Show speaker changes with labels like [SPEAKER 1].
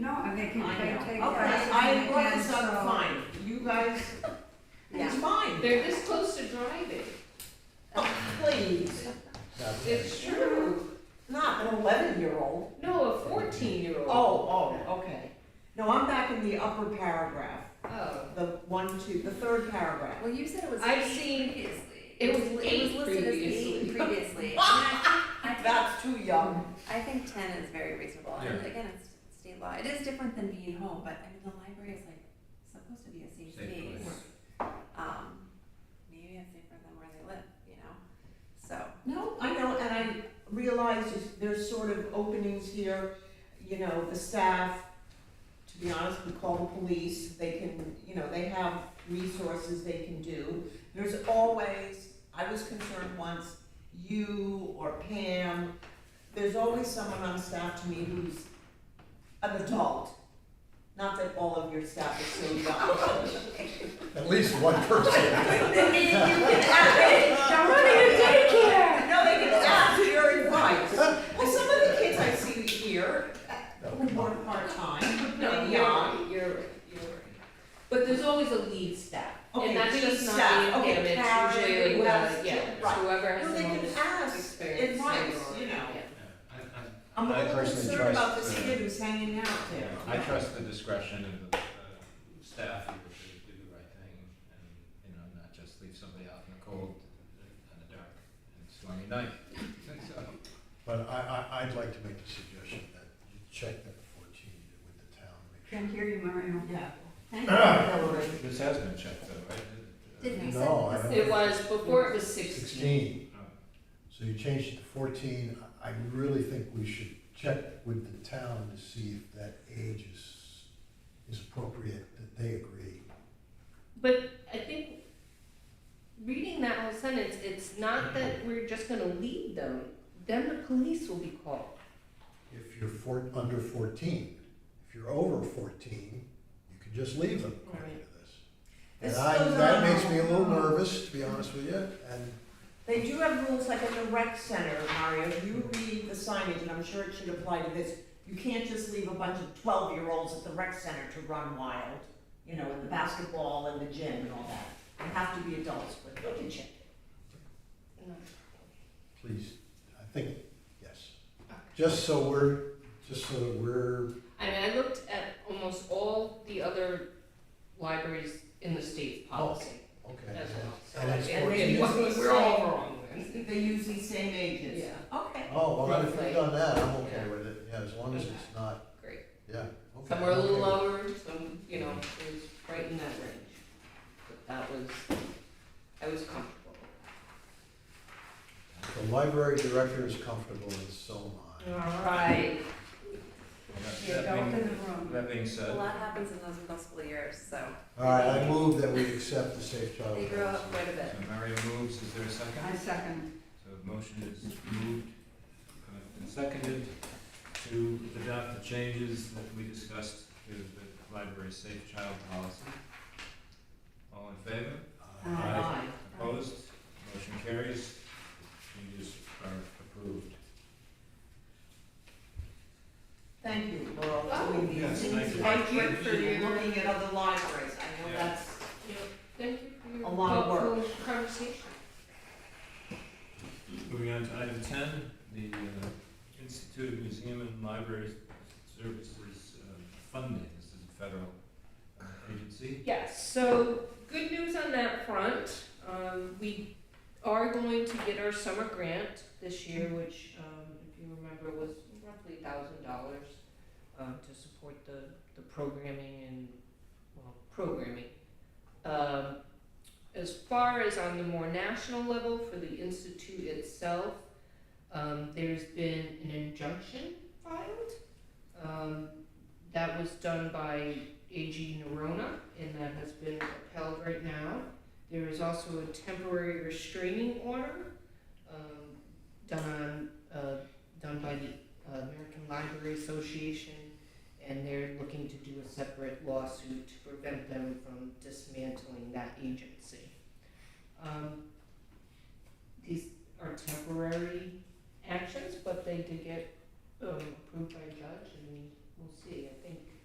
[SPEAKER 1] They can,
[SPEAKER 2] I
[SPEAKER 1] they
[SPEAKER 2] know.
[SPEAKER 1] take.
[SPEAKER 2] Okay,
[SPEAKER 1] classes
[SPEAKER 2] I
[SPEAKER 1] in
[SPEAKER 2] brought
[SPEAKER 1] advance,
[SPEAKER 2] this up
[SPEAKER 1] so-
[SPEAKER 2] fine, you guys, it's fine.
[SPEAKER 3] They're this close to driving.
[SPEAKER 2] Please,
[SPEAKER 3] It's true.
[SPEAKER 2] not an eleven-year-old.
[SPEAKER 3] No, a fourteen-year-old.
[SPEAKER 2] Oh, oh, okay. No, I'm back in the upper paragraph,
[SPEAKER 3] Oh.
[SPEAKER 2] the one, two, the third paragraph.
[SPEAKER 4] Well, you said it was
[SPEAKER 3] I've
[SPEAKER 4] eight
[SPEAKER 3] seen-
[SPEAKER 4] previously.
[SPEAKER 3] it was
[SPEAKER 4] It
[SPEAKER 3] eight
[SPEAKER 4] was listed as eight
[SPEAKER 3] previously.
[SPEAKER 4] previously. I mean, I think, I
[SPEAKER 2] That's too young.
[SPEAKER 4] think, I think ten is very reasonable, and again, it's state law, it is different than being home, but I mean, the library is like supposed to be a safe
[SPEAKER 5] Safe
[SPEAKER 4] space.
[SPEAKER 5] place.
[SPEAKER 4] Um, maybe it's safer than where they live, you know, so,
[SPEAKER 2] No, I know, and I realize there's- there's sort of openings here, you know, the staff, to be honest, we call the police, they can, you know, they have resources they can do. There's always, I was concerned once, you or Pam, there's always someone on staff to me who's an adult. Not that all of your staff is so young.
[SPEAKER 5] At least one person.
[SPEAKER 2] Now, running a daycare. No, they can ask your advice. Well, some of the kids I see here who work part-time,
[SPEAKER 3] No,
[SPEAKER 2] maybe
[SPEAKER 3] you're
[SPEAKER 2] on.
[SPEAKER 3] right, you're right, you're right. But there's always a lead staff,
[SPEAKER 2] Okay,
[SPEAKER 3] and that's
[SPEAKER 2] lead
[SPEAKER 3] just
[SPEAKER 2] staff,
[SPEAKER 3] not the
[SPEAKER 2] okay,
[SPEAKER 3] image,
[SPEAKER 2] Karen,
[SPEAKER 3] usually
[SPEAKER 2] who
[SPEAKER 3] like,
[SPEAKER 2] else?
[SPEAKER 3] uh, yeah,
[SPEAKER 2] Right.
[SPEAKER 3] whoever has
[SPEAKER 2] Well,
[SPEAKER 3] the
[SPEAKER 2] they can
[SPEAKER 3] most
[SPEAKER 2] ask
[SPEAKER 3] experience.
[SPEAKER 2] advice,
[SPEAKER 3] or-
[SPEAKER 2] you know.
[SPEAKER 3] yeah.
[SPEAKER 2] I'm a
[SPEAKER 5] I
[SPEAKER 2] little
[SPEAKER 5] personally
[SPEAKER 2] concerned about
[SPEAKER 5] trust
[SPEAKER 2] this
[SPEAKER 5] the-
[SPEAKER 2] kid who's hanging out there.
[SPEAKER 6] I trust the discretion of the uh, staff here to do the right thing and, you know, not just leave somebody out in the cold and the dark and stormy night. So,
[SPEAKER 5] But I, I, I'd like to make the suggestion that you check that fourteen with the town. make
[SPEAKER 1] Can't hear you, Mario.
[SPEAKER 2] Yeah.
[SPEAKER 1] Thank you.
[SPEAKER 5] sure-
[SPEAKER 2] Hillary.
[SPEAKER 6] This has been checked though, right? Uh,
[SPEAKER 4] did we set this?
[SPEAKER 5] No, I don't.
[SPEAKER 3] It was, before it was sixteen.
[SPEAKER 5] Sixteen, so you changed it to fourteen, I I really think we should check with the town to see if that age is, is appropriate, that they agree.
[SPEAKER 3] But I think, reading that whole sentence, it's not that we're just gonna lead them, then the police will be called.
[SPEAKER 5] If you're four, under fourteen, if you're over fourteen, you can just leave them according to this. And
[SPEAKER 2] It's
[SPEAKER 5] I,
[SPEAKER 2] still
[SPEAKER 5] that
[SPEAKER 2] not-
[SPEAKER 5] makes me a little nervous, to be honest with you, and
[SPEAKER 2] They do have rules like at the rec center, Mario, you read the signage, and I'm sure it should apply to this. You can't just leave a bunch of twelve-year-olds at the rec center to run wild, you know, in the basketball and the gym and all that. They have to be adults, but look at you.
[SPEAKER 5] please, I think, yes. Just so we're, just so that we're,
[SPEAKER 3] I mean, I looked at almost all the other libraries in the state's policy
[SPEAKER 5] okay.
[SPEAKER 3] as well, so
[SPEAKER 5] And
[SPEAKER 3] I
[SPEAKER 5] it's
[SPEAKER 3] think
[SPEAKER 5] 14.
[SPEAKER 3] we're- we're all wrong then.
[SPEAKER 2] They use these same ages.
[SPEAKER 3] Yeah,
[SPEAKER 2] Okay.
[SPEAKER 5] Oh, well, if
[SPEAKER 3] Roughly.
[SPEAKER 5] we've done that, I'm okay with it, yeah, as long as it's not,
[SPEAKER 3] great.
[SPEAKER 5] yeah. okay,
[SPEAKER 3] Some were a little
[SPEAKER 5] okay.
[SPEAKER 3] lower, some, you know, it was right in that range. But that was, I was comfortable.
[SPEAKER 5] The library director is comfortable and so am I.
[SPEAKER 3] Alright.
[SPEAKER 1] Yeah,
[SPEAKER 6] That
[SPEAKER 1] go in
[SPEAKER 6] being,
[SPEAKER 1] the room.
[SPEAKER 6] that being
[SPEAKER 4] a
[SPEAKER 6] said,
[SPEAKER 4] lot happens in those middle school years, so
[SPEAKER 5] All right, I move that we accept the safe child.
[SPEAKER 4] they grow up quite a
[SPEAKER 6] so
[SPEAKER 4] bit.
[SPEAKER 6] Mario moves, is there a second?
[SPEAKER 1] I second.
[SPEAKER 6] So the motion is moved uh, and seconded to adopt the changes that we discussed to the library's safe child policy. All in favor?
[SPEAKER 5] Uh,
[SPEAKER 2] Aye.
[SPEAKER 6] Opposed? Motion carries. Changes are approved.
[SPEAKER 2] Thank you, Laurel, for doing these.
[SPEAKER 6] Oh. Yes, thank you.
[SPEAKER 2] Thank you
[SPEAKER 3] Work for you.
[SPEAKER 2] for looking at other libraries. I know
[SPEAKER 6] Yeah.
[SPEAKER 2] that's,
[SPEAKER 3] Thank you for your
[SPEAKER 2] A lot of
[SPEAKER 3] thoughtful conversation.
[SPEAKER 6] Moving on to item ten, the uh, Institute of Museum and Library Services uh, funding. This is a federal uh, agency.
[SPEAKER 3] Yes, so good news on that front. Um, we are going to get our summer grant this year, which, um, if you remember, was roughly thousand dollars, um, to support the, the programming and, well, programming. Um, as far as on the more national level for the institute itself, um, there's been an injunction filed. Um, that was done by AG Nerona, and that has been upheld right now. There is also a temporary restraining order um, done on, uh, done by the uh, American Library Association, and they're looking to do a separate lawsuit to prevent them from dismantling that agency. Um, these are temporary actions, but they did get um, approved by a judge, and we'll see. I think